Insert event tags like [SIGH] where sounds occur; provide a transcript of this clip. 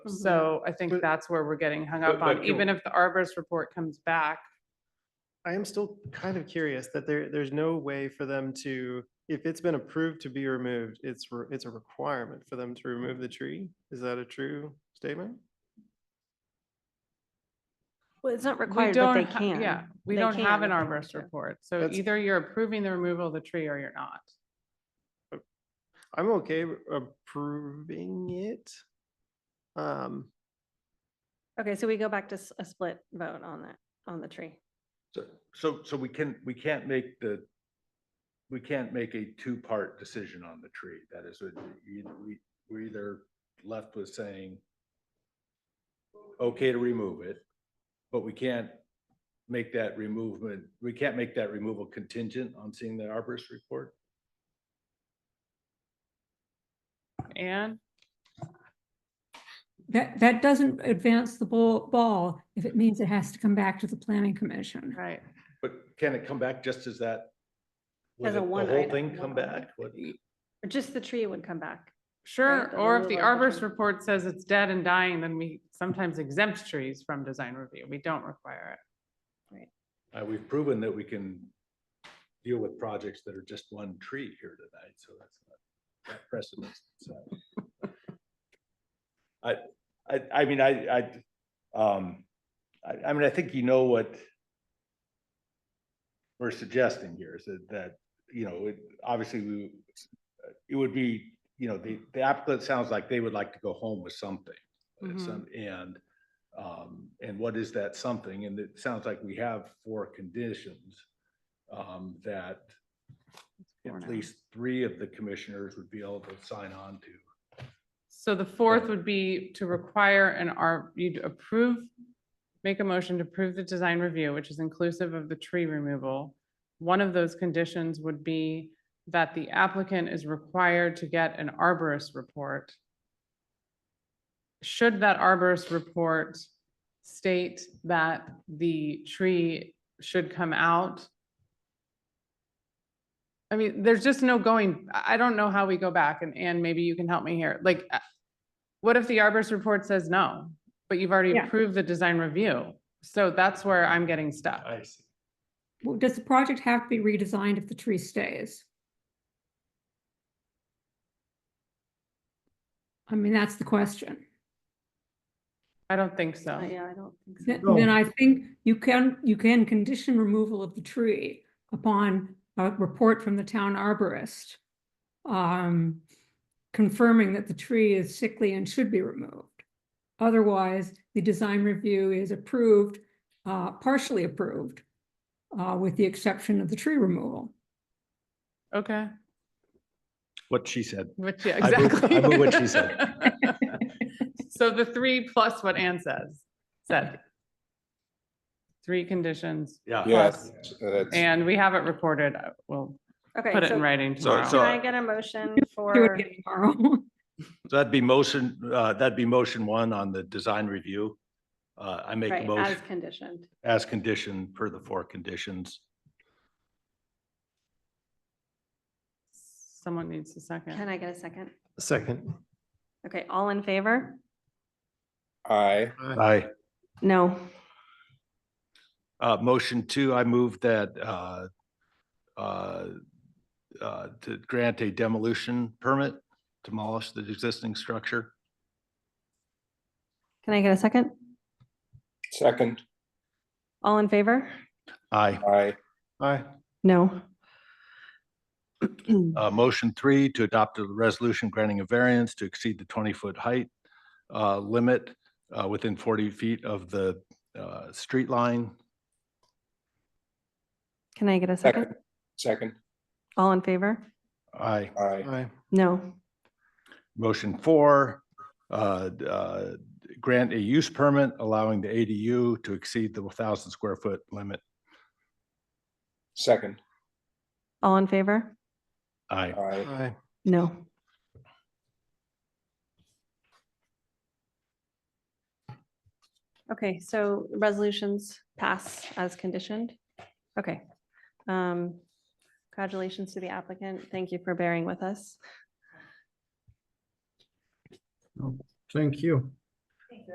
Mm-hmm. So I think But- that's where we're getting hung But- up on, but you- even if the arborist report comes back. I am still kind of curious that there, there's no way for them to, if it's been approved to be removed, it's, re- it's a requirement for them to remove the tree. Is that a true statement? Well, it's not we required, but they don't ha- can. Yeah, we They don't have an can if they want arborist to. report. So That's- either you're approving the removal of the tree or you're not. I'm okay with approving it. Um, Okay, so we go back to s- a split vote on that, on the tree. So, so, so we can, we can't make the, we can't make a two-part decision on the tree. That is, what you- we, we're either left with saying, okay to remove it, but we can't make that removement, we can't make that removal contingent on seeing the arborist report? And That, that doesn't advance the ball, ball if it means it has to come back to the planning commission. right, But can it come back just as that? would As a it- one The whole item, thing one come item. back? What- Or Just the tree would come back. sure, the or if the removal of the arborist tree. report says it's dead and dying, then we sometimes exempt trees from design review. We don't require it. Uh, we've proven that we can deal with projects that are just one tree here tonight, so that's not that precedent. so. I, I, I mean, I, I, um, I, I mean, I think you know what we're suggesting here is that, that, you know, it, obviously we, it would be, you know, the, the applicant sounds like they would like to go home with something. Mhm. And some, and, um, and what is that something? And it sounds like we have four conditions, um, that Four now. at least three of the commissioners would be able to sign on to. So the fourth would be to require an R, you'd approve, make a motion to approve the design review, which is inclusive of the tree removal. One of those conditions would be that the applicant is required to get an arborist report. Should that arborist report state that the tree should come out? I mean, there's just no going, I I don't know how we go back and, and maybe you can help me here. Like, uh, what if the arborist report says no, but you've already Yeah. approved the design review? So that's where I'm getting stuck. see. Well, Does the project have to be redesigned if the tree stays? I mean, that's the question. I don't think so. Uh, Yeah, I don't think so. Then, then I think you can, you can condition removal of the tree upon a report from the town arborist. Um, confirming that the tree is sickly and should be removed. Otherwise, the design review is approved, uh, partially approved. Uh, with the exception of the tree removal. Okay, What she said. which, yeah, I move- I exactly. move what she said. [LAUGHS] So the three plus what Ann says, said. Three conditions, Yeah. Yes. That's, and we have it recorded. uh, We'll Okay, put it so in writing So- tomorrow. can so- uh, I get a motion Do for, it again [LAUGHS] tomorrow. So that'd be motion, uh, that'd be motion one on the design review. Uh, I make a right, as motion conditioned? as condition per the four conditions. Someone needs a Can second. I get a second? second. Okay, all in favor? I, Aye. No. Uh, motion two, I move that, uh, uh, uh, to grant a demolition permit, demolish the existing structure. Can I get a second? second, All in favor? Aye. I, Aye. No. Uh, motion three, to adopt a resolution granting a variance to exceed the twenty-foot height uh, limit uh, within forty feet of the uh, street line. Can I get a second? second, second, All in favor? Aye. I, Aye. No. Motion four, uh, d- uh, grant a use permit allowing the ADU to exceed the thousand square foot limit. second, All in favor? Aye. I, Aye. No. Okay, so resolutions pass as conditioned. Okay. Um Congratulations to the applicant. Thank you for bearing with us. Thank you.